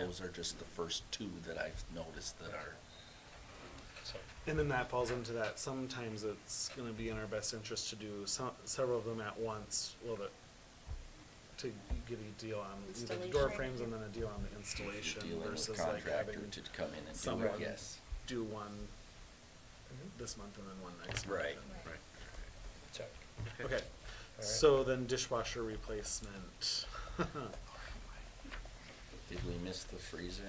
those are just the first two that I've noticed that are. So, And then that falls into that, sometimes it's gonna be in our best interest to do some, several of them at once, well, the, to get a deal on either the door Installation. frames and then a deal on the if you're installation dealing with versus like having Contractor to come in and do someone it, yes. do one this month and then one next month. Right. and- Right. check. Okay, so then dishwasher replacement. Did we miss the freezer?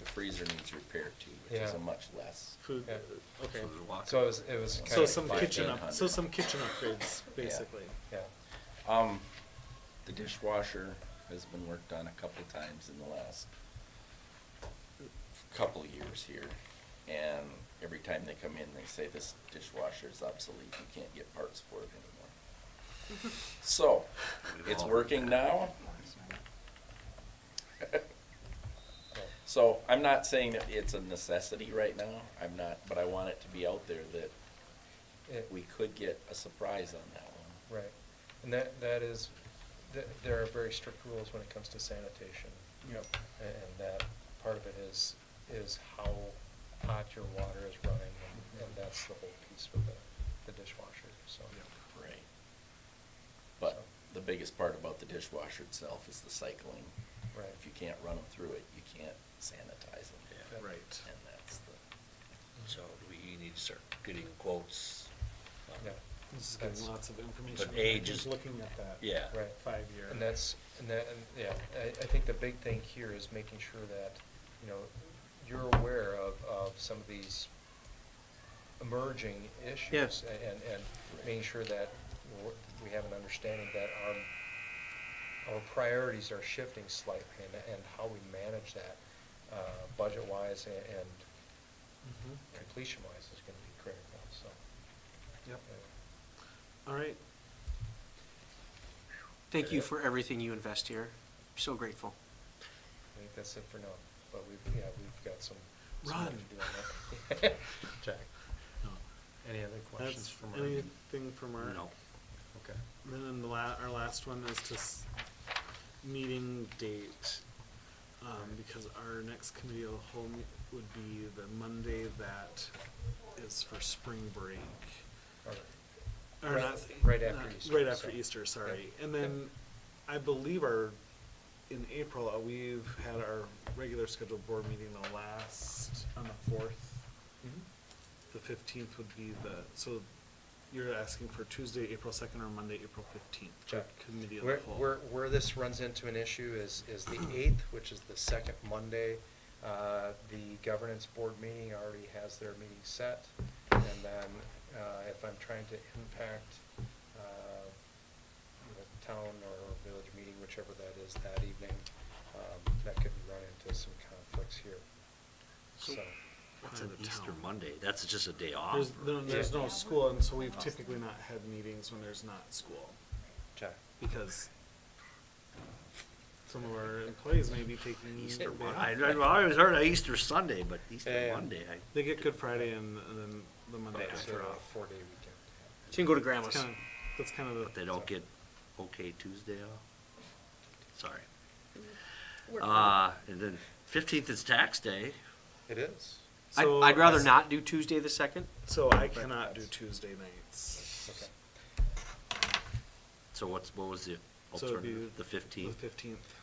The freezer needs repair too, which is Yeah. a much less. Food, Yeah. okay, So it was, it was kind so of. some five kitchen up, hundred. so some kitchen upgrades, Yeah. basically. Yeah, Um, the dishwasher has been worked on a couple times in the last couple years here. And every time they come in, they say this dishwasher is obsolete, you can't get parts for it anymore. So, it's working now. So I'm not saying that it's a necessity right now, I'm not, but I want it to be out there that it, we could get a surprise on that one. right. And that, that is, th- there are very strict rules when it comes to sanitation. Yep. a- And that part of it is, is how hot your water is running, and- and that's the whole piece with the, the dishwasher, so. Right. But the biggest part about the dishwasher itself is the cycling. Right. If you can't run them through it, you can't sanitize them. Yeah. Right. And that's the, So we need to start getting quotes. on- um, Yeah, This is getting lots of information. But age Just is- Looking at that. Yeah. right. Five year. And that's, and that, and, yeah, I, I think the big thing here is making sure that, you know, you're aware of, of some of these emerging issues. Yes. a- And, and making sure that we're- we have an understanding that our, our priorities are shifting slightly and, and how we manage that, uh, budget-wise and, and Mhm. completion-wise is gonna be critical, so. Yep. uh, All right, Thank you for everything you invest here. So grateful. I think that's it for now, but we've, yeah, we've got some. some work to Run. do on that. Jack, No. any other questions that's, from our? anything from our? No, Okay. Then the la- our last one is to s- meeting date, um, because our next committee of the whole me- would be the Monday that is for spring break. All right. Or Right- not, right after not- Easter, Right after so- Easter, sorry. Yeah, And yeah. then I believe our, in April, uh, we've had our regular scheduled board meeting the last, on the fourth. The fifteenth would be the, so you're asking for Tuesday, April second or Monday, April fifteenth? Jack, Committee of where, the whole. where, where this runs into an issue is, is the eighth, which is the second Monday. Uh, the governance board meeting already has their meeting set. And then, uh, if I'm trying to impact, uh, the town or village meeting, whichever that is that evening, um, that could run into some conflicts here. So- So, that's Out an of Easter town. Monday, that's just a day off. There's, or- no- there's Yeah. no school, and so we've typically not had meetings when there's not school, Jack, because some of our employees may be taking. Easter, they- Mon- I, I always heard of Easter Sunday, but Easter Yeah. Monday, I. They get Good Friday and, and then the Monday it's after a off. four-day weekend. She can go to That's grandma's. kind of, that's kind of But they the, don't get okay Tuesday off? Sorry. Work Uh, and then fifteenth is tax day. It is. I'd, So I'd rather as- not do Tuesday the second. so I cannot do Tuesday nights. Okay. So what's, what was the So it'd be alternative? The The fifteenth fifteenth,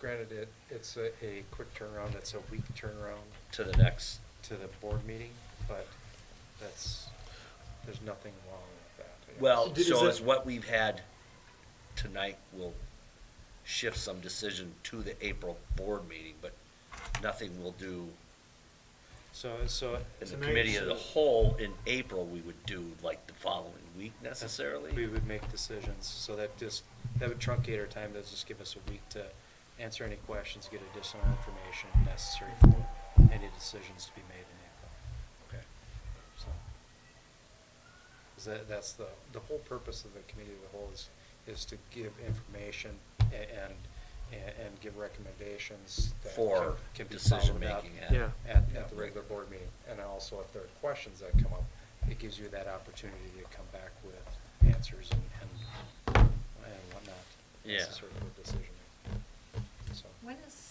Granted, it, it's a, a quick turnaround, it's a week turnaround to the next, to the board meeting, but that's, there's nothing wrong with that. well, Is so it- is what we've had tonight will shift some decision to the April board meeting, but nothing will do So, so, in the Tonight, committee of the so- whole in April, we would do like the following week we necessarily. would make decisions, so that just, that would truncate our time, that'd just give us a week to answer any questions, get additional information necessary for any decisions to be made in April, Okay. so. 'Cause that, that's the, the whole purpose of the committee of the whole is, is to give information a- and, and, and give recommendations that For can- can be followed up decision-making. at- Yeah. at, Yeah, at the right. regular board meeting. And also if there are questions that come up, it gives you that opportunity to come back with answers and, and and whatnot. Yeah. Necessary for decision. making. So, When is